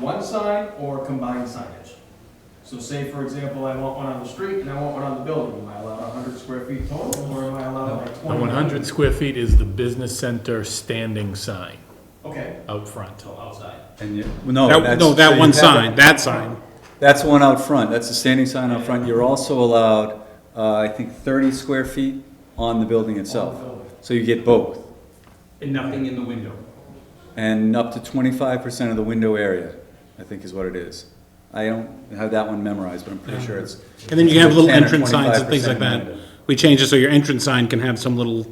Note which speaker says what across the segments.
Speaker 1: one sign or combined signage. So say, for example, I want one on the street and I want one on the building, am I allowed hundred square feet total, or am I allowed like
Speaker 2: The
Speaker 1: twenty?
Speaker 2: one hundred square feet is the business center standing sign
Speaker 1: Okay,
Speaker 2: out front.
Speaker 1: so outside.
Speaker 3: And you, no,
Speaker 2: That-
Speaker 3: Oh, that's.
Speaker 2: No, that one
Speaker 3: that's-
Speaker 2: sign, that sign.
Speaker 3: That's one out front, that's the standing sign out front. You're also allowed, uh, I think, thirty square feet on the building
Speaker 1: On the
Speaker 3: itself.
Speaker 1: building.
Speaker 3: So you get both,
Speaker 4: And nothing in the window.
Speaker 3: and up to twenty-five percent of the window area, I think is what it is. I don't have that one memorized, but I'm pretty sure it's.
Speaker 5: And then you can have little
Speaker 3: 10 or
Speaker 5: entrance signs and things like
Speaker 3: 25%
Speaker 5: that. We change it so your entrance sign can have some little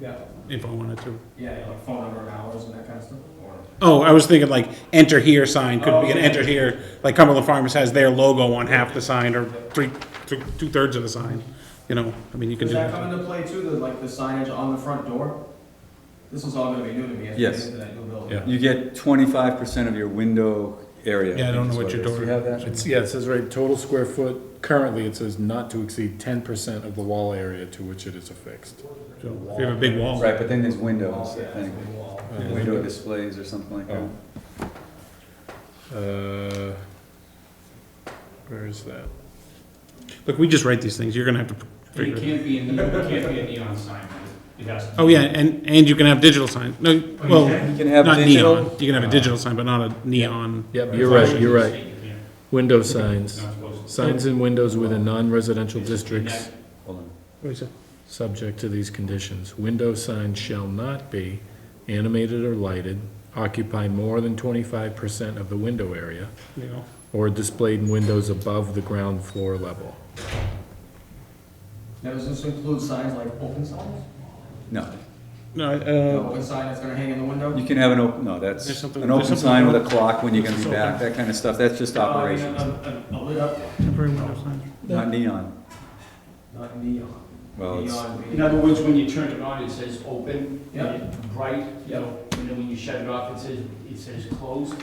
Speaker 1: Yeah,
Speaker 5: info on it too.
Speaker 1: yeah, like phone number, hours and that kind of stuff, or?
Speaker 5: Oh, I was thinking like enter here sign could
Speaker 3: Oh,
Speaker 5: be an enter here, like Cumberland Farms has their logo on half the sign or three, two thirds of the sign. You know, I mean, you can
Speaker 1: Does
Speaker 5: do
Speaker 1: that
Speaker 5: that.
Speaker 1: come into play too, the, like the signage on the front door? This is all gonna be new to me as we get
Speaker 3: Yes.
Speaker 1: into that new building.
Speaker 2: Yeah.
Speaker 3: You get twenty-five percent of your window area.
Speaker 5: Yeah, I don't
Speaker 3: is
Speaker 5: know what your
Speaker 3: it is.
Speaker 5: door-
Speaker 3: Do you have that?
Speaker 2: It's, yeah, it says right, total square foot, currently it says not to exceed ten percent of the wall area to which it is affixed.
Speaker 5: So, If you have a big wall.
Speaker 3: Right, but then there's windows,
Speaker 1: Wall,
Speaker 3: I
Speaker 1: yeah,
Speaker 3: think.
Speaker 1: it's a wall.
Speaker 3: Window displays or something like
Speaker 5: Oh.
Speaker 3: that.
Speaker 2: Uh, Where is that?
Speaker 5: Look, we just write these things. You're gonna have to
Speaker 4: And
Speaker 5: figure
Speaker 4: It
Speaker 5: it out.
Speaker 4: can't be a neon, it can't be a neon sign, right? It has to.
Speaker 5: Oh, yeah, and, and you can have digital sign. No, well,
Speaker 3: Oh, You can have
Speaker 5: not neon.
Speaker 3: digital,
Speaker 5: You can have a digital sign, but not a neon.
Speaker 2: Yep, you're right, you're right.
Speaker 4: You can't.
Speaker 2: Window
Speaker 4: It's
Speaker 2: signs,
Speaker 4: not supposed to.
Speaker 2: signs and windows within non-residential
Speaker 4: And
Speaker 2: districts.
Speaker 4: that-
Speaker 3: hold on,
Speaker 5: What'd you say?
Speaker 2: subject to these conditions. Window signs shall not be animated or lighted, occupy more than twenty-five percent of the window area,
Speaker 5: Neon.
Speaker 2: or displayed in windows above the ground floor level.
Speaker 1: Now, does this include signs like open signs?
Speaker 3: no.
Speaker 5: No,
Speaker 1: The
Speaker 5: uh,
Speaker 1: open sign that's gonna hang in the window?
Speaker 3: You can have an open, no, that's,
Speaker 5: There's something-
Speaker 3: an
Speaker 5: there's
Speaker 3: open
Speaker 5: something
Speaker 3: sign with
Speaker 5: open.
Speaker 3: a clock when you're gonna be
Speaker 5: It's
Speaker 3: back,
Speaker 5: open.
Speaker 3: that kind of stuff, that's just
Speaker 5: Oh,
Speaker 1: Uh, I mean,
Speaker 3: operations,
Speaker 1: A, a- a lit up,
Speaker 5: temporary window signs.
Speaker 3: not neon.
Speaker 1: not neon.
Speaker 3: Well, it's,
Speaker 1: Neon being-
Speaker 4: In other words, when you turn it on, it says open,
Speaker 1: Yeah.
Speaker 4: and bright, you know, and then when you shut it off, it says, it says closed.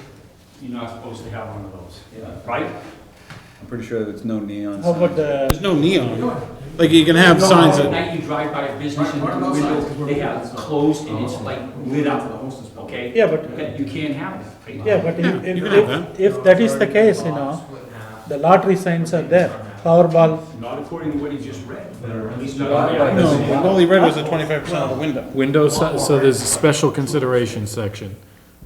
Speaker 4: You're not supposed to have one of those,
Speaker 1: Yeah.
Speaker 4: right?
Speaker 3: I'm pretty sure there's no neon
Speaker 6: How about
Speaker 3: sign.
Speaker 6: the,
Speaker 5: There's no
Speaker 1: You
Speaker 5: neon.
Speaker 1: know what?
Speaker 5: Like you can have
Speaker 6: No,
Speaker 5: signs
Speaker 4: At
Speaker 5: that,
Speaker 4: night, you drive by a business and
Speaker 1: Right,
Speaker 4: through the
Speaker 1: right, right,
Speaker 4: window,
Speaker 1: right.
Speaker 4: they have closed and it's like lit
Speaker 1: To
Speaker 4: up,
Speaker 1: the hostess building.
Speaker 4: okay?
Speaker 6: yeah, but,
Speaker 4: Okay, You can't have it, right?
Speaker 6: yeah, but
Speaker 5: Yeah,
Speaker 6: if,
Speaker 5: you can have
Speaker 6: if, if that is the case, you know, the lottery signs are there, Powerball,
Speaker 4: Not according to what he just read, or at least not.
Speaker 5: no, what Wally read was the twenty-five percent of the window.
Speaker 2: Window, si- so there's a special consideration section.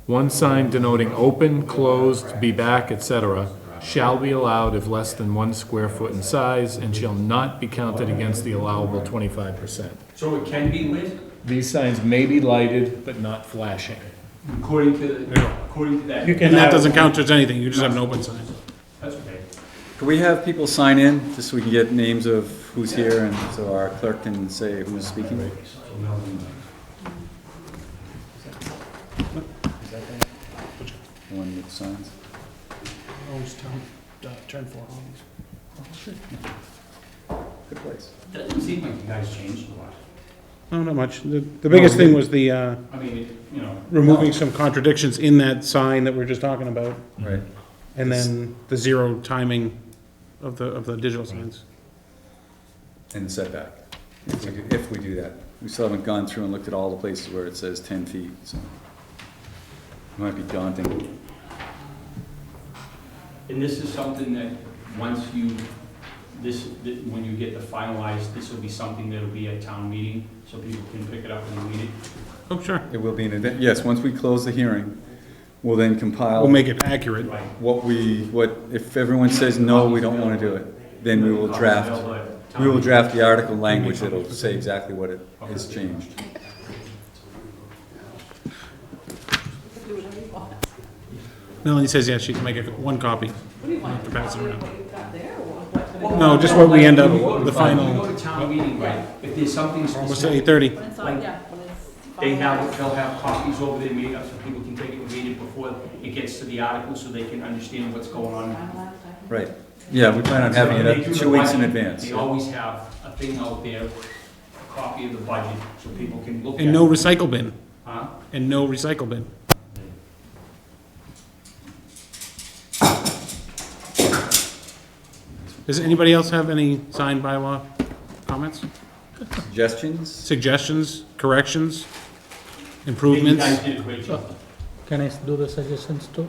Speaker 2: One sign denoting open, closed, be back, etc., shall be allowed if less than one square foot in size and shall not be counted against the allowable twenty-five percent.
Speaker 4: So it can be lit,
Speaker 2: These signs may be lighted, but not flashing.
Speaker 4: according to, according to
Speaker 6: you
Speaker 4: that,
Speaker 6: can
Speaker 5: And that
Speaker 6: have,
Speaker 5: doesn't count towards anything, you just have an open sign.
Speaker 4: that's okay.
Speaker 3: Can we have people sign in, just so we can get names of who's here, and so our clerk can say who's speaking? The One with signs.
Speaker 5: Turn four.
Speaker 3: Good place.
Speaker 4: Doesn't seem like you guys changed a lot.
Speaker 5: No, Oh, not much. The, the biggest thing was the, uh,
Speaker 4: I mean, it- you know,
Speaker 5: removing some contradictions in that sign that we we're just talking about,
Speaker 3: Right.
Speaker 5: and then the zero timing of the, of the digital signs.
Speaker 3: And the setback, if we do- if we do that. We still haven't gone through and looked at all the places where it says ten feet, so. Might be daunting.
Speaker 4: and this is something that, once you, this, th- when you get the finalized, this will be something that'll be at town meeting, so people can pick it up and read it.
Speaker 5: Oh, sure.
Speaker 3: It will be an event, yes, once we close the hearing, we'll then compile.
Speaker 5: We'll make it accurate.
Speaker 4: Right.
Speaker 3: what we, what, if everyone says no, we don't wanna do it, then we will draft, we will draft the article language that'll say exactly what it is changed.
Speaker 5: Melanie says, yeah, she can make it one copy.
Speaker 7: What do you want?
Speaker 5: to pass it around.
Speaker 7: What you've got there or what?
Speaker 5: No, just what we end up,
Speaker 4: When
Speaker 5: the
Speaker 4: you go
Speaker 5: final,
Speaker 4: to town meeting, right, if there's something
Speaker 5: almost
Speaker 4: specific,
Speaker 5: eight thirty.
Speaker 7: When it's
Speaker 4: Like,
Speaker 7: on, yeah, when it's.
Speaker 4: they have,
Speaker 7: finalized.
Speaker 4: they'll have copies over their meeting, so people can take it and read it before it gets to the article, so they can understand what's going on.
Speaker 7: Finalized, I think.
Speaker 3: Right, yeah, we plan on having
Speaker 4: They
Speaker 3: it
Speaker 4: do
Speaker 3: up
Speaker 4: the
Speaker 3: two weeks in
Speaker 4: budget.
Speaker 3: advance.
Speaker 4: They always have a thing out there, a copy of the budget, so people can look at it.
Speaker 5: And no recycle bin,
Speaker 4: Huh?
Speaker 5: and no recycle bin. Does anybody else have any signed bylaw comments,
Speaker 3: Suggestions?
Speaker 5: suggestions, corrections,
Speaker 4: You
Speaker 5: improvements?
Speaker 4: guys did a great job.
Speaker 6: can I do the suggestions too?